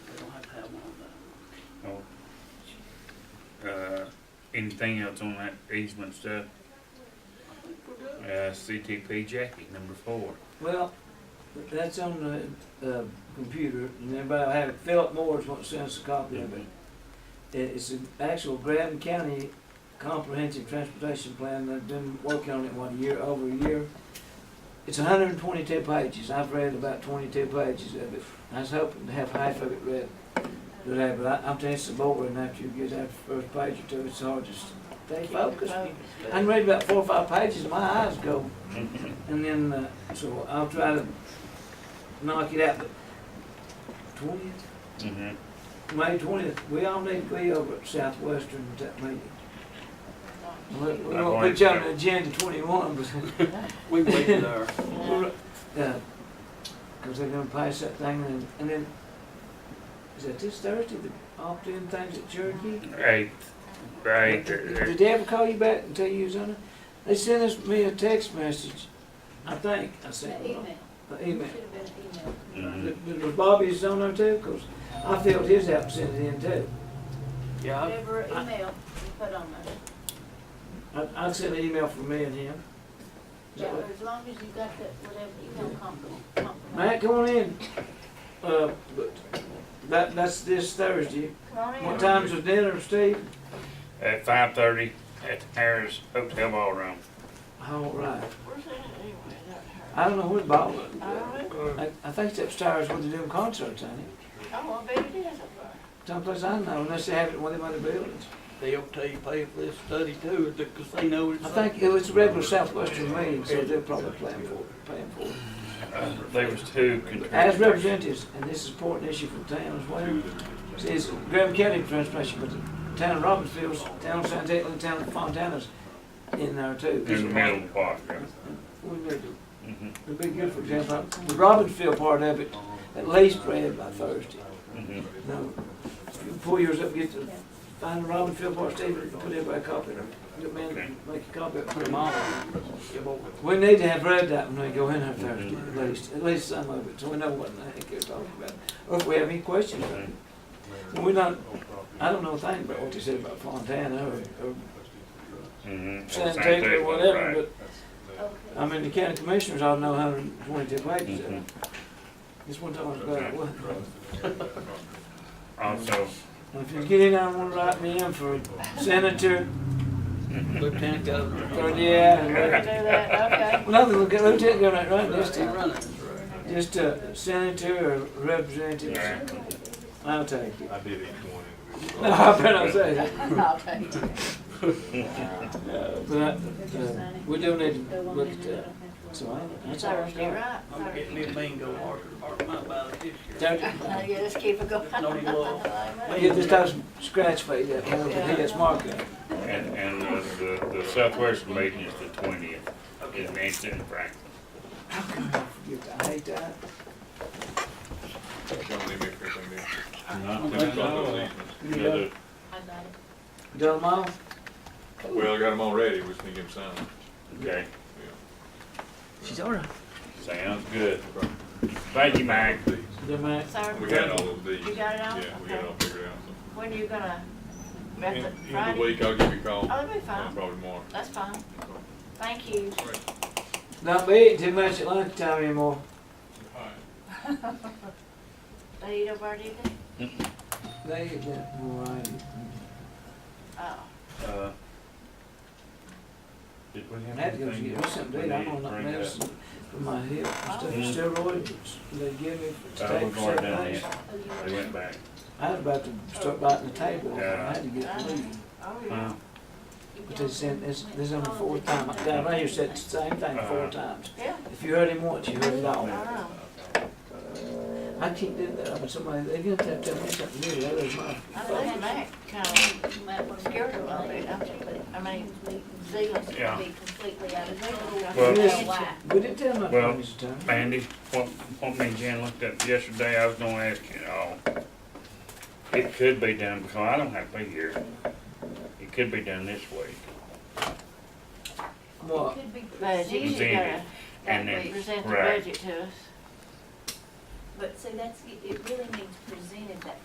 Oh. Uh, anything else on that easement stuff? Uh, CTP Jackie, number four. Well, that's on the, uh, computer, and everybody will have it, Philip Moore's what sends a copy of Mm-hmm. it. It- It's an actual Graham County Comprehensive Transportation Plan, they've been working on it one year, over a year. It's hundred and twenty-two pages, I've read about twenty-two pages of it, I was hoping to have half of it read today, but I, I'm telling you, it's boring after you get out the first page or two, it's hard to stay focused. I can read about four or five pages, my eyes go and then, uh, so I'll try to knock it out, but twentieth, Mhm. May twentieth, we all need to be over at Southwestern at that meeting. We- We I'm won't going put you on to. the agenda twenty-one, but, We waited there. we're, uh, cause they're gonna pass that thing and, and then, is that this Thursday, the opt-in things at Cherokee? Right, right. Did there- did they ever call you back and tell you was on it? They sent us, me a text message, I think, I The sent email. them, an email. Should have been an email. Mhm. But- but Was Bobby's on there too? 'Cause I felt his absence then too. Yeah, I- Whatever email you put on there. I, I sent an email from me and him. Is that Yeah, what- as long as you got that, whatever email company. Matt, come on in. Uh, but that, that's this Thursday. What time's the dinner, Steve? At uh, five thirty at the Harris Hotel Ballroom. All right. I don't know where the ball was. I, I think it's upstairs where they're doing concerts, ain't it? Oh, I bet it is up there. Someplace I know, unless they have it in one of them other buildings. they'll tell you pay for this study too, at the casino. I think it was a regular Southwestern meeting, so they're probably playing for, it- paying for it. Uh, There was two As contractors. representatives, and this is an important issue for the town as well, is Graham County transportation, but the town of Robbinsville, town of San Diego, and the town of Fontana's in there too. In the middle of the park, right? We need to, Mhm, it'd be good, for example, the Robbinsville part of it, at least read by Thursday. mhm. Now, pull yours up, get the, find the Robbinsville part, Steve, and put everybody a copy of it. Good man, make a copy, of it, put them on. We need to have read that when we go in there Thursday, at least, at least some of it, so we know what the heck you're talking about. Or if we have any questions. And We're not, I don't know a thing about what they said about Fontana or, or Mhm. San Diego or Right. whatever, but, I Okay. mean, the county commissioners all know hundred and twenty-two pages of Mhm. it. This one time was about, what, Also, if you get in, I wanna write me in for senator, Lieutenant Governor. or, yeah. We can do that, okay. Well, nothing, we'll get lieutenant governor, right, just, Running, a- running. just a senator or representative, right. I'll take it. I did each one individually. No, I better not say that. I'll take it. But, uh, we do need to The one look in at the that. middle. uh, So I, that's all I've Thursday, got. right? I'm getting me a bingo marker, mark my ballot this year. Don't- Uh, Yeah, let's keep it going. No, you won't. Yeah, just those scratch face, that one with the head mark on it. And, and uh, the, the Southwestern meeting is the twentieth, in Manson, Franklin. I hate that. Don't leave me for something. You got it? I got it. Done them all? Well, I got them all ready, we just need to get them signed. Okay, She's all right. sounds good. Thank you, Mike. Done mine. Sorry, We had all of these. You got it all? Yeah, we got it all figured out. so. when are you gonna, End that's it, end of the Friday? week, I'll give you a call, Oh, that'll be uh, fine, probably tomorrow. that's fine, thank you. Not be eating too much at lunchtime anymore. They eat over there, do they? They eat that more I eat. Oh, Uh, Did we I have had to go anything? get me something to eat. I'm on else that we need to bring up? medicine for my hip and Mhm. stuff, steroids they give me to Uh, we're take for going seven down days. there. Oh, you- They went back. I was about to start biting the table, I Yeah. had to get leave. oh, yeah. Wow. you But got they it. said, this, this is on the fourth time, I down right here said the same thing four Uh-huh. times. Yeah, If you heard him once, you heard it all. I know. I keep doing that, but somebody, they're gonna have to tell me something new, that is my I think Mac kind of You might want to- scared her a little bit, I think, but, I mean, Zealand's Yeah. Be completely out of Well- control. Well- That's why. We didn't tell my Well- friends to tell me. Mandy, what, what me and Jen looked up yesterday, I was gonna ask you all. It could be done, because I don't have to be here. It could be done this week. What? Could be But you presented. usually gotta And present then, the right. budget to us. But see, that's, it it really means presented that